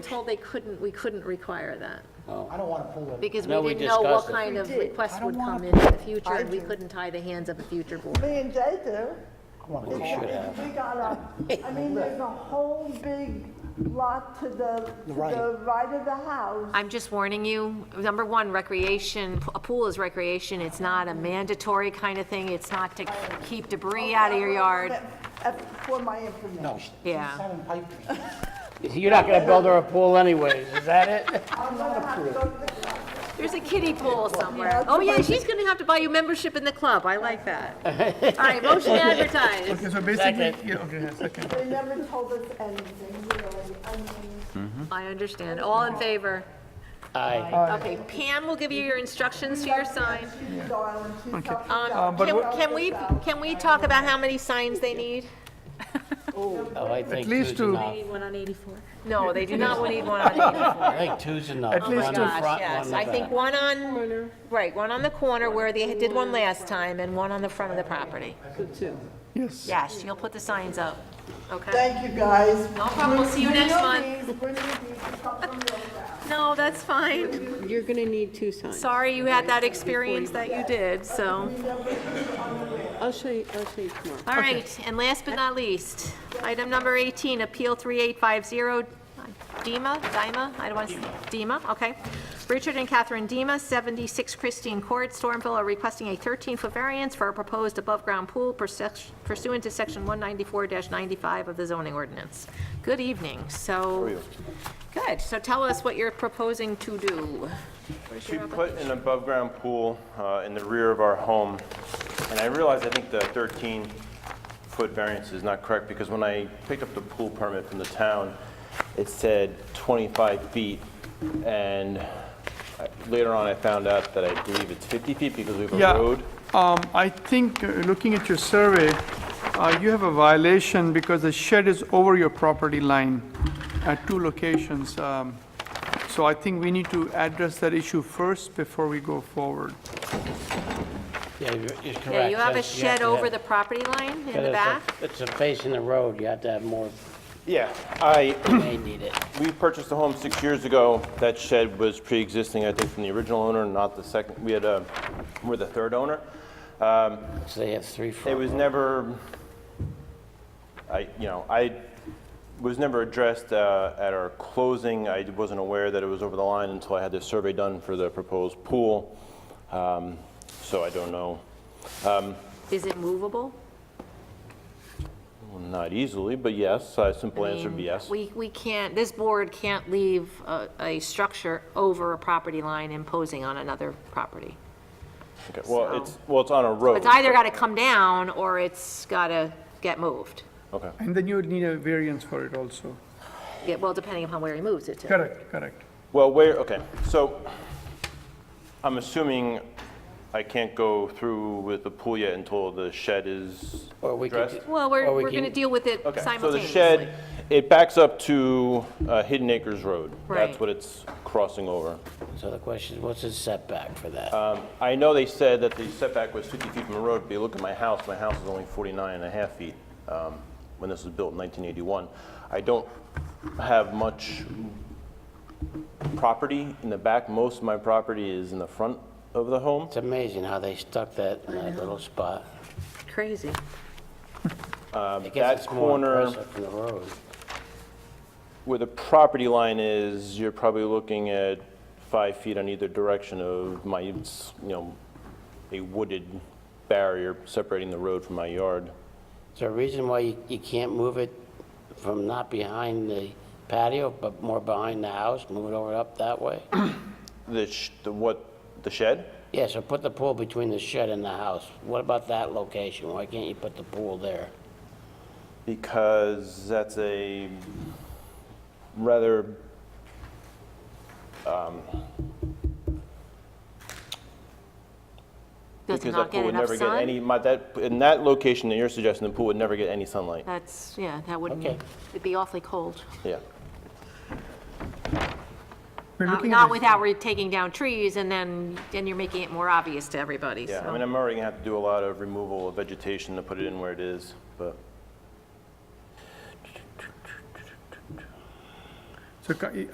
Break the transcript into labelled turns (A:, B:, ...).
A: Told they couldn't, we couldn't require that,
B: I don't want to pull it.
A: because we
C: No, we
A: didn't know what
C: discussed it.
A: kind of
D: We did.
A: requests
B: I don't
A: would come
B: wanna-
A: in in the future,
D: I
A: and we
D: do.
A: couldn't tie the hands of a future board.
D: Me and Jay do.
B: I wanna
C: We
B: pull
C: should
B: it.
C: have.
D: We got a, I mean, there's a whole big lot to the, to
B: Right.
D: the right of the house.
A: I'm just warning you, number one, recreation, a pool is recreation, it's not a mandatory kind of thing, it's not to keep debris out of your yard.
D: Uh, For my information.
B: No.
A: Yeah.
B: Seven pipe me.
C: You're not gonna build her a pool anyways, is that it?
D: I'm gonna have to go to the
A: There's a kiddie pool somewhere.
D: Yeah.
A: Oh, yeah, she's gonna have to buy you membership in the club, I like that. All right, motion advertised.
E: Okay, so basically, yeah, okay, yeah, second.
D: They never told us anything, really. I mean,
A: I understand, all in favor.
C: Aye.
A: Okay, Pam will give you your instructions to your sign.
D: she's darling, she's self-sufficient.
A: Um,
E: but
A: Can
E: what-
A: can we, can we talk about how many signs they need?
C: Oh, I think two's
E: least two.
C: enough.
A: No, they do not need one on eighty-four.
C: I think two's enough.
E: At least
C: One in
E: two.
C: front,
A: Gosh,
C: one
A: yes,
C: in
A: I
C: the
A: think
C: back.
A: one on, right, one on the corner where they did one last time, and one on the front of the property.
E: Yes.
A: Yes, you'll put the signs up, okay?
D: Thank you, guys.
A: No problem, we'll see you next month.
D: Bring me these, bring me these,
A: No, that's fine.
F: You're going to need two signs.
A: Sorry you had that experience that you did, so.
F: I'll show you, I'll show you tomorrow.
A: All right, and last but not least, item number 18, Appeal 3850, Dema, Dima, I don't want to, Dema, okay. Richard and Catherine Dema, 76 Christine Court, Stormville, are requesting a 13-foot variance for a proposed above-ground pool pursu- pursuant to Section 194-95 of the zoning ordinance. Good evening, so, good, so tell us what you're proposing to do.
G: We put an above-ground pool uh, in the rear of our home, and I realize I think the 13-foot variance is not correct, because when I picked up the pool permit from the town, it said 25 feet, and I- later on I found out that I believe it's 50 feet because we have
E: Yeah,
G: a road.
E: um, I think, uh, looking at your survey, uh, you have a violation because the shed is over your property line at two locations. um, So I think we need to address that issue first before we go forward.
C: Yeah, you're- you're correct.
A: Yeah, you have a
C: That's- you
A: shed
C: to
A: over the
C: have-
A: property line in
C: it's
A: the
C: a-
A: back?
C: It's a facing the road, you have to have more,
G: Yeah, I,
C: they need it.
G: we purchased the home six years ago. That shed was pre-existing, I think, from the original owner, not the second, we had, a- we're the third owner.
C: So they have three
G: It
C: front.
G: was never, I, you know, I was never addressed uh, at our closing. I wasn't aware that it was over the line until I had this survey done for the proposed pool. Um, So I don't know,
A: Is it movable?
G: not easily, but yes, a simple answer would be yes.
A: We, we can't, this board can't leave a, a structure over a property line imposing on another property.
G: Okay, Well, it's, well, it's on a road.
A: It's either gotta come down, or it's gotta get moved.
G: Okay.
E: And then you would need a variance for it also.
A: Yeah, well, depending upon where he moves it to.
E: Correct, correct.
G: Well, where, okay, so I'm assuming I can't go through with the pool yet until the shed is
C: Or we could
G: addressed?
C: do-
A: Well, we're,
C: Or we
A: we're gonna
C: can-
A: deal with it
G: Okay, so the
A: simultaneously.
G: shed, it backs up to uh, Hidden Acres Road.
A: Right.
G: That's what it's crossing over.
C: So the question is, what's the setback for that?
G: I know they said that the setback was 50 feet from the road, but you look at my house, my house is only 49 and a half feet um, when this was built in 1981. I don't have much property in the back. Most of my property is in the front of the home.
C: It's amazing how they stuck that in that little spot.
A: Crazy.
C: I guess
G: um, that
C: it's more
G: corner-
C: impressive from the road.
G: Where the property line is, you're probably looking at five feet on either direction of my, you know, a wooded barrier separating the road from my yard.
C: Is there a reason why you, you can't move it from not behind the patio, but more behind the house, move it over up that way?
G: The, sh- the what, the shed?
C: Yeah, so put the pool between the shed and the house. What about that location? Why can't you put the pool there?
G: Because that's a rather, um,
A: Does it
G: because that
A: not get
G: pool would
A: enough
G: never get
A: sun?
G: any, my, that, in that location that you're suggesting, the pool would never get any sunlight.
A: That's, yeah, that wouldn't,
C: Okay.
A: it'd be awfully cold.
G: Yeah.
E: We're
A: Not-
E: looking at
A: Um, Not
E: this-
A: without re- taking down trees, and then, then you're making it more obvious to everybody,
G: Yeah, I mean,
A: so.
G: I'm already gonna have to do a lot of removal of vegetation to put it in where it is, but.
E: So ca-